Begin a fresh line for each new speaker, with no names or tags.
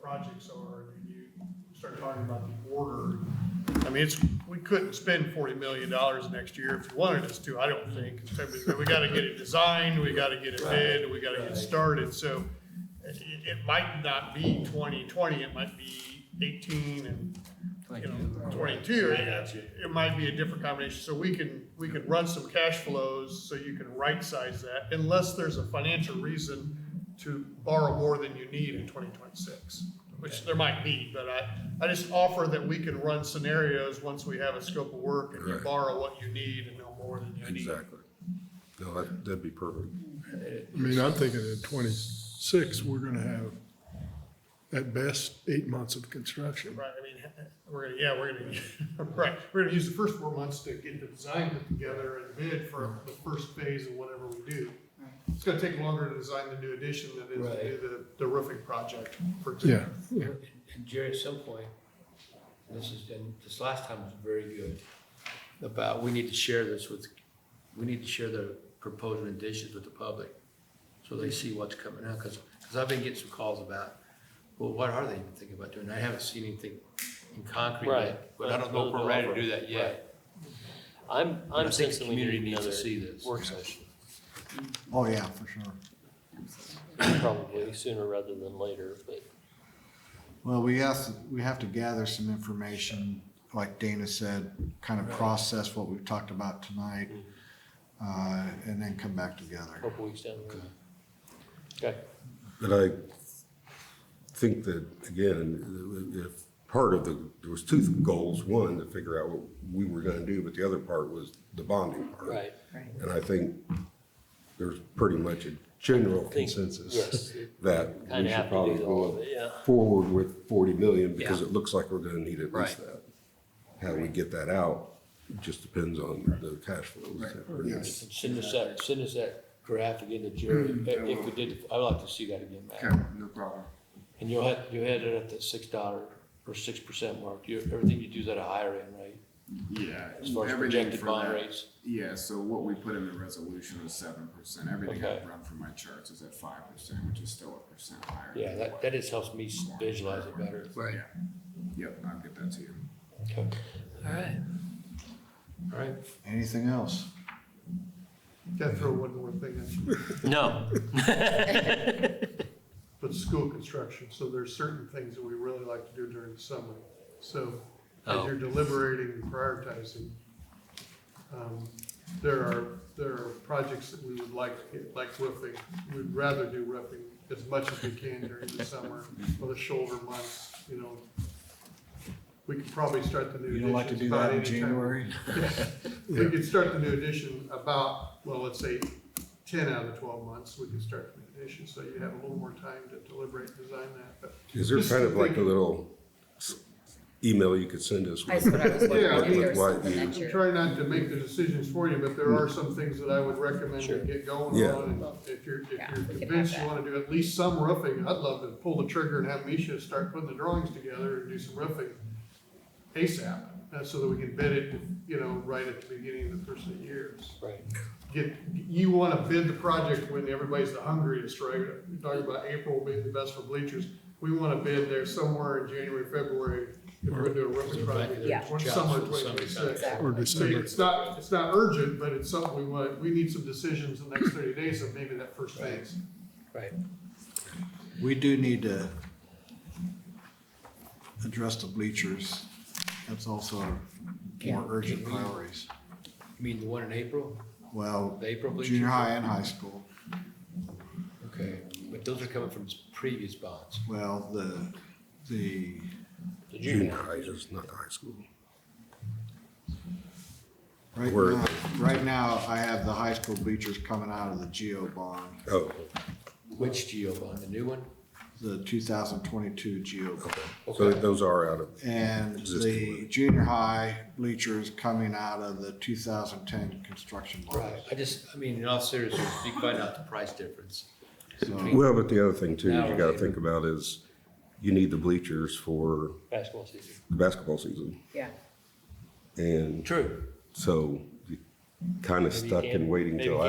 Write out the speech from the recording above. projects are, and you start talking about the order. I mean, it's, we couldn't spend forty million dollars next year if you wanted us to, I don't think. We gotta get it designed, we gotta get it bid, we gotta get started, so it, it might not be twenty twenty, it might be eighteen and, you know, twenty-two. It it might be a different combination, so we can, we can run some cash flows, so you can right-size that, unless there's a financial reason to borrow more than you need in twenty twenty-six, which there might be, but I, I just offer that we can run scenarios once we have a scope of work, and you
Right.
borrow what you need and no more than you need.
Exactly. No, that, that'd be perfect.
I mean, I'm thinking in twenty-six, we're gonna have at best eight months of construction.
Right, I mean, we're gonna, yeah, we're gonna, right, we're gonna use the first four months to get the design put together and bid for the first phase of whatever we do. It's gonna take longer to design the new addition than it is to do the, the roofing project, for
Yeah,
example.
yeah,
And Jerry, at some point, this is, and this last time was very good, about, we need to share this with, we need to share the proposed renditions with the public, so they see what's coming out, because, I've been getting some calls about, well, what are they even thinking about doing? I haven't seen anything in concrete yet,
Right.
but I don't know if we're ready to do that
Right.
yet.
I'm,
But I
I'm
think the
sensing we
community
need
needs to
another
see this.
work session,
Oh, yeah, for sure.
probably sooner rather than later, but
Well, we asked, we have to gather some information, like Dana said, kind of process what we've talked about tonight, uh, and then come back
a
together.
couple weeks down the road. Okay,
But I think that, again, if part of the, there was two goals. One, to figure out what we were gonna do, but the other part was the bonding part.
right.
And I think there's pretty much a general
Think-
consensus
yes.
that we
Kinda have
should
to
probably
do all of
go
it, yeah.
forward with forty million because
Yeah.
it looks like we're gonna need at least that. How we get that out just depends on the cash flows.
And Send us that, send us that draft again to Jerry, if if we did, I'd like to see that again, Matt.
no problem.
And you'll have, you had it at the six dollar or six percent mark, you, everything you do is at a higher end, right?
Yeah.
As far as
everything
projected
for
bond
that-
rates,
Yeah, so what we put in the resolution was seven percent. Everything
Okay.
I've run from my charts is at five percent, which is still a percent higher.
yeah,
than
that,
what-
that just helps me s- visualize it better.
Yeah. Yep, I'll get that to you.
Okay. Alright. Alright,
Anything else?
Gotta throw one more thing in,
No.
but school construction, so there's certain things that we really like to do during the summer. So, as
Oh.
you're deliberating and prioritizing, um, there are, there are projects that we would like, to get, like roofing. We'd rather do roofing as much as we can during the summer or the shoulder months, you know. We could probably start the new
You
additions.
don't like to do
about
that in
any time.
January?
We could start the new edition about, well, let's say ten out of twelve months, we could start the new edition, so you have a little more time to deliberate and design that, but.
Is there
Just
kind of like a
thinking-
little s- email you could send us?
That's
with-
what I was
with-
wondering,
Yeah, I
if
with
there was
what
something
you-
that you're,
Try not to make the decisions for you, but there are some things that I would recommend you
Sure.
get going
Yeah.
on. and If you're, if
Yeah,
you're
we could have
convinced you
that.
wanna do at least some roofing, I'd love to pull the trigger and have Misha start putting the drawings together and do some roofing ASAP, uh, so that we can bid it, you know, right at the beginning of the first of the year.
Right.
get, you wanna bid the project when everybody's the hungriest, right? You're talking about April being the best for bleachers. We wanna bid there somewhere in January, February, if we're gonna do a roofing project,
Yeah.
or summer
Jobs for the
twenty
summertime.
twenty-six.
or
exactly.
So
December.
it's not, it's not urgent, but it's something we want, we need some decisions in the next thirty days of maybe that first phase.
Right.
We do need to address the bleachers. That's also more
Can-
urgent
can we-
priorities.
You mean the one in April?
Well,
The April bleachers?
junior high and high school.
Okay, but those are coming from previous bonds.
Well, the, the
The
Junior
junior.
high, just not high school.
Right
Where-
now, right now, I have the high school bleachers coming out of the GEO bond,
Oh,
Which geo bond, the new one?
the two thousand twenty-two GEO bond.
so those are out of,
And
Existing
the junior high bleachers coming out of the two thousand ten construction bond.
Right, I just, I mean, in all seriousness, you find out the price difference.
Mm-hmm.
So,
well, but the other thing too, you gotta think about is you need the bleachers for
Basketball season.
the basketball season.
Yeah.
And
True.
so you kind of stuck
can't-
in waiting
maybe
till